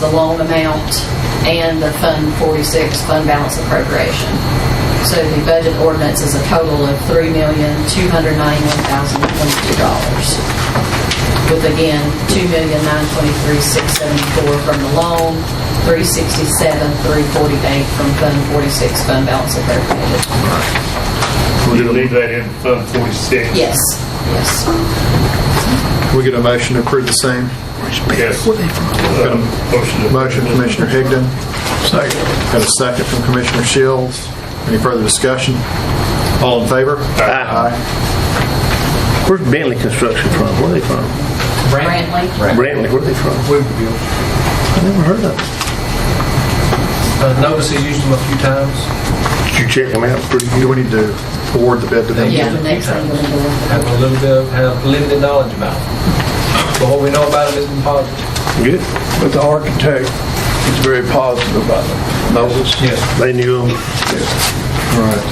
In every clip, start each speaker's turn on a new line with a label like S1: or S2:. S1: the loan amount and the Fund 46 fund balance appropriation. So the budget ordinance is a total of $3,291,022 with again, two million nine twenty-three six seventy-four from the loan, three sixty-seven three forty-eight from Fund forty-six fund balance appropriated.
S2: We'll leave that in Fund 46.
S1: Yes, yes.
S3: Can we get a motion to approve the same?
S2: Yes. Uh, Motion. to-
S3: Motion, Commissioner Higdon. Second. Got a second from Commissioner Shields. Any further discussion? All in favor? Aye.
S4: Where's Bentley Construction from? Where are they from?
S1: Brantley?
S4: Brantley, where are they from?
S5: Louisville.
S4: I never heard of them.
S5: Uh, Novus has used them a few times.
S4: Did you check them out? Pretty
S3: Do we need to award the bid to them?
S1: Yeah, the next thing we're gonna do.
S5: Have a little bit, of- have limited knowledge about them. But what we know about them isn't positive.
S4: good.
S6: But the architect is very positive about it. Moses?
S5: Yes.
S4: They knew them.
S3: All right.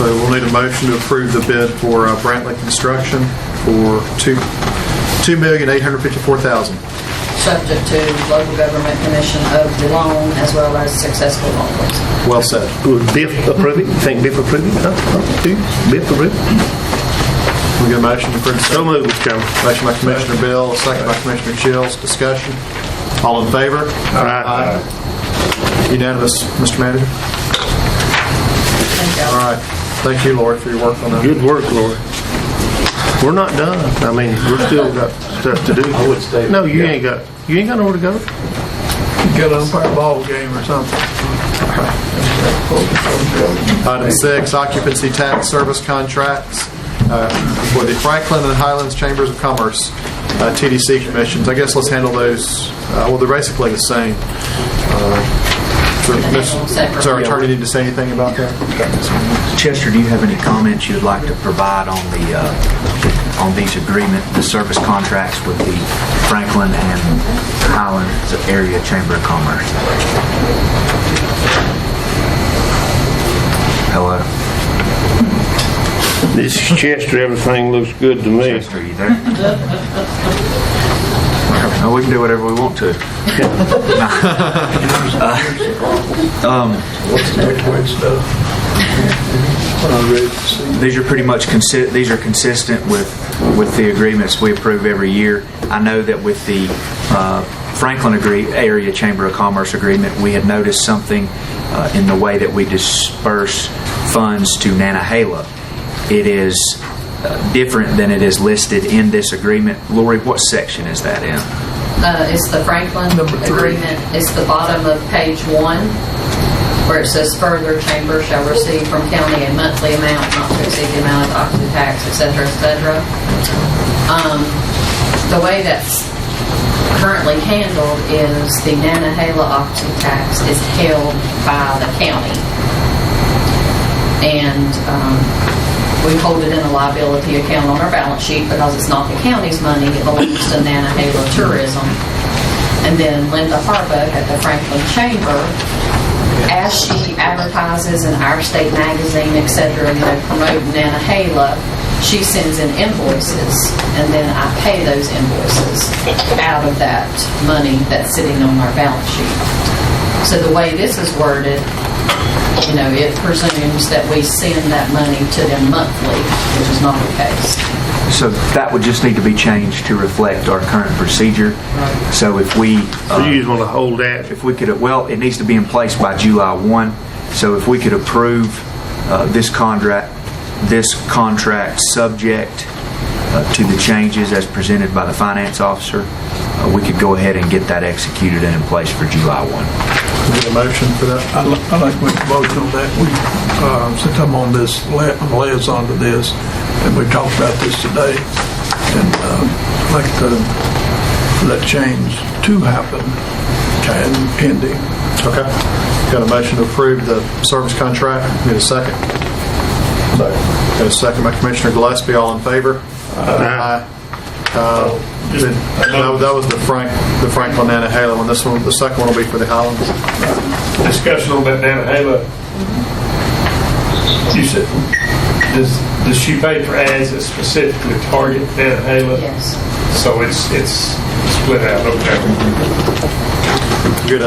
S3: So we'll need a motion to approve the bid for uh, Brantley Construction for two, two million eight hundred fifty-four thousand.
S1: subject to local government commission of the loan as well as successful loan closing.
S3: Well said.
S4: Would Biff approve it? You Think Biff approved it? Huh? Huh? Do you? Biff approved it?
S3: Can we get a motion to approve the
S4: So
S3: same?
S4: moved, Mr. Chairman.
S3: Motion by Commissioner Bill, second by Commissioner Shields. Discussion? All in favor?
S4: Aye.
S3: Aye. Unanimous, Mr. Manager?
S1: Thank
S3: All
S1: y'all.
S3: right. Thank you, Lori, for your work on that.
S4: Good work, Lord. We're not done. I mean, we're still got stuff to do. I would stay. No, you ain't got, you ain't got nowhere to go.
S6: Got an umpire ball game or something.
S3: Item six, occupancy tax service contracts uh, for the Franklin and Highlands Chambers of Commerce, uh, TDC commissions. I guess let's handle those, uh, well, they're basically the same. Uh, so, Ms. Does our attorney need to say anything about that?
S7: Chester, do you have any comments you'd like to provide on the, uh, on these agreement, the service contracts with the Franklin and Highland Area Chamber of Commerce? Hello?
S4: This Chester, everything looks good to me.
S7: Chester, are you there? No, we can do whatever we want to.
S6: What's the next week's stuff? When I read to see.
S7: These are pretty much consi- these are consistent with with the agreements we approve every year. I know that with the uh, Franklin agree- area Chamber of Commerce agreement, we had noticed something uh, in the way that we disperse funds to Nanahala. It is uh, different than it is listed in this agreement. Lori, what section is that in?
S1: Uh, It's the Franklin agreement, it's the bottom of page one, where it says further chamber shall receive from county a monthly amount not to exceed the amount of occupancy tax, et cetera, et cetera. Um, The way that's currently handled is the Nanahala occupancy tax is held by the county. and um, we hold it in a liability account on our balance sheet because it's not the county's money, it belongs to Nantahala Tourism. And then Linda Harbuck at the Franklin Chamber, as she advertises in our state magazine, et cetera, you know, promoting Nantahala, she sends in invoices, and then I pay those invoices out of that money that's sitting on our balance sheet. So the way this is worded, you know, it presumes that we send that money to them monthly, which is not the case.
S7: So that would just need to be changed to reflect our current procedure.
S1: Right.
S7: So if we
S4: So
S7: uh,
S4: you just want to hold that.
S7: if we could, well, it needs to be in place by July 1, so if we could approve uh, this contract, this contract subject uh, to the changes as presented by the finance officer, uh, we could go ahead and get that executed and in place for July 1.
S3: Can we get a motion for that?
S6: I'd li- I'd like to make a motion on that. We, uh, since I'm on this, la- I'm liaison to this, and we talked about this today, and um, I'd like to let change to happen and pending.
S3: Okay. Got a motion to approve the service contract. Need a second? Second. Got a second by Commissioner Gillespie. All in favor? Aye. Uh, That that was the Frank, the Franklin Nantahala one. This one, the second one will be for the Highlands.
S2: Discussion on that Nantahala. You said, does, does she pay for ads that specifically target Nantahala?
S1: Yes.
S2: So it's, it's split out, okay.